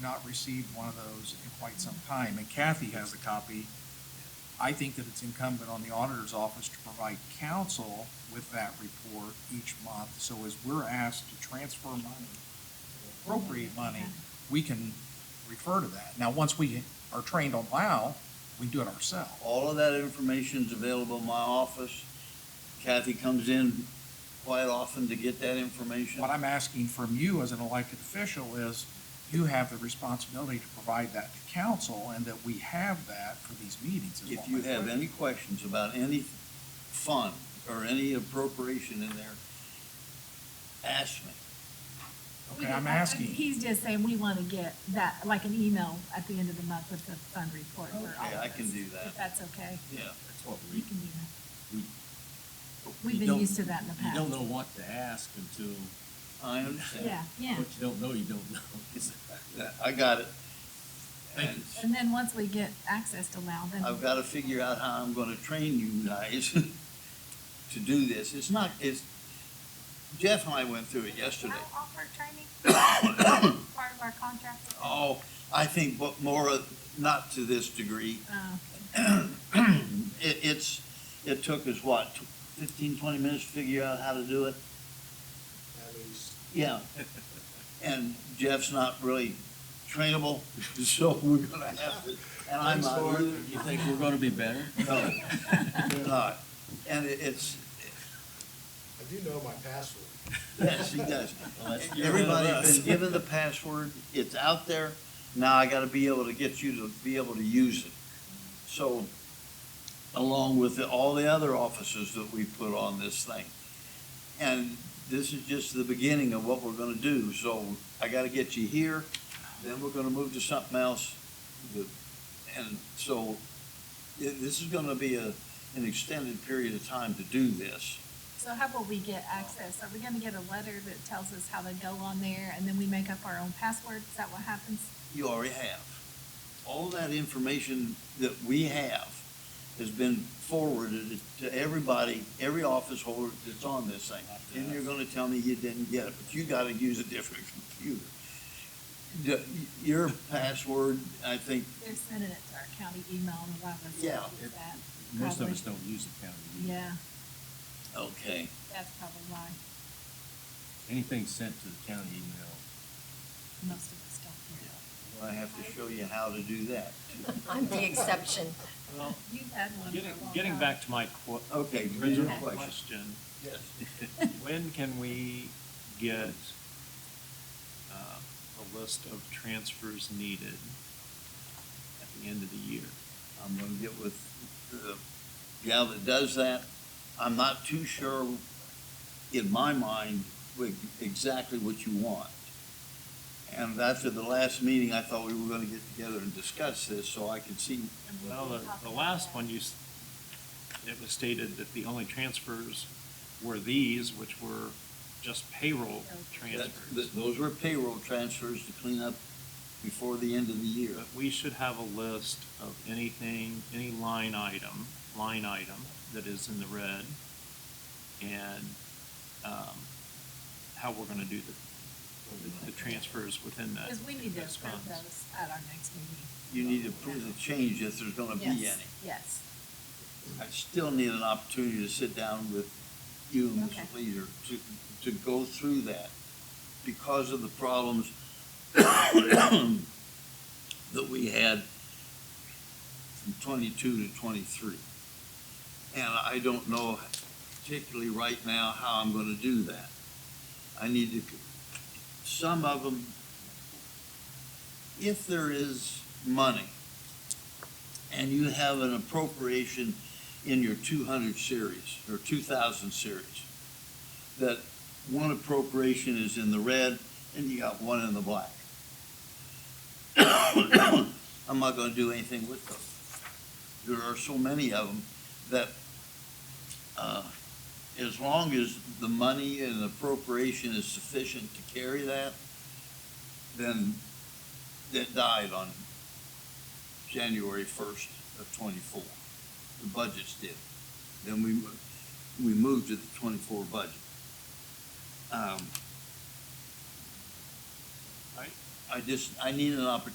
not received one of those in quite some time, and Kathy has a copy. I think that it's incumbent on the auditor's office to provide counsel with that report each month. So as we're asked to transfer money, appropriate money, we can refer to that. Now, once we are trained on LAO, we do it ourselves. All of that information's available in my office. Kathy comes in quite often to get that information. What I'm asking from you as an elected official is you have the responsibility to provide that to council and that we have that for these meetings. is If what you my have question- any questions about any fund or any appropriation in there, ask me. Okay, I'm asking. He's just saying we want to get that, like an email at the end of the month with the fund report for all of us. Okay, I can do that. If that's okay, Yeah. That's what you we, can do that. we. We've you been don't- used to that in the You don't past. know what to ask until, I understand. Yeah, yeah. what you don't know, you don't know. Yeah, I got it. Thank you. And And then once we get access to Lao, then. I've got to figure out how I'm going to train you guys to do this. It's not, it's, Jeff and I went through it yesterday. Lao offer training, part of our contract. Oh, I think what more, of- not to this degree. Uh, It, it's, it took us what, tw- fifteen, twenty minutes to figure out how to do it? Yeah. And Jeff's not really trainable, so we're gonna have to, and I'm Thanks, not. Lord. You think we're gonna be better? No, we're not. And it- it's, I do know my password. yes, he does. that's good. Everybody's been given the password, it's out there, now I gotta be able to get you to be able to use it. So, along with the- all the other offices that we put on this thing. And this is just the beginning of what we're gonna do, so I gotta get you here, then we're gonna move to something else. The- And so, i- this is gonna be a, an extended period of time to do this. So how will we get access? Are we going to get a letter that tells us how to go on there and then we make up our own password? Is that what happens? you already have. All that information that we have has been forwarded to everybody, every office holder that's on this thing. And you're gonna tell me you didn't get it, but you gotta use a different computer. The- Your password, I think, They're sending it to our county email and a lot of us. Yeah. do that. Most of Probably. us don't use the county. We- Yeah, okay, that's probably why Anything sent to the county email, most of us don't well, I have to show you how to do that. I'm the exception. Well, do it. You've had one for a getting, long getting time. back to my qu- Okay, read your original question. question, Yes. when can we get, uh, a list of transfers needed at the end of the year? I'm gonna get with the gal that does that. I'm not too sure, in my mind, with exactly what you want. And after the last meeting, I thought we were gonna get together and discuss this, so I could see, And we Well, can the, talk the about last that. one, you, s- it was stated that the only transfers were these, which were just payroll that, transfers. that those were payroll transfers to clean up before the end of the year. But we should have a list of anything, any line item, line item that is in the red and, um, how we're gonna do the, the- the transfers within that. Because we need to those approve funds. those at our next meeting. You need to approve the change if there's gonna be Yes, any. Yes, I still need an opportunity to sit down with you and Okay. Mr. Leader to, to go through that because of the problems that we had from twenty-two to twenty-three. And I don't know particularly right now how I'm gonna do that. I need to, some of them, if there is money and you have an appropriation in your two hundred series or two thousand series, that one appropriation is in the red and you got one in the black. I'm not gonna do anything with those. There are so many of them that, uh, as long as the money and appropriation is sufficient to carry that, then that died on January first of twenty-four. The budgets did. Then we, mo- we moved to the twenty-four budget. Um, I, I just, I need an opportunity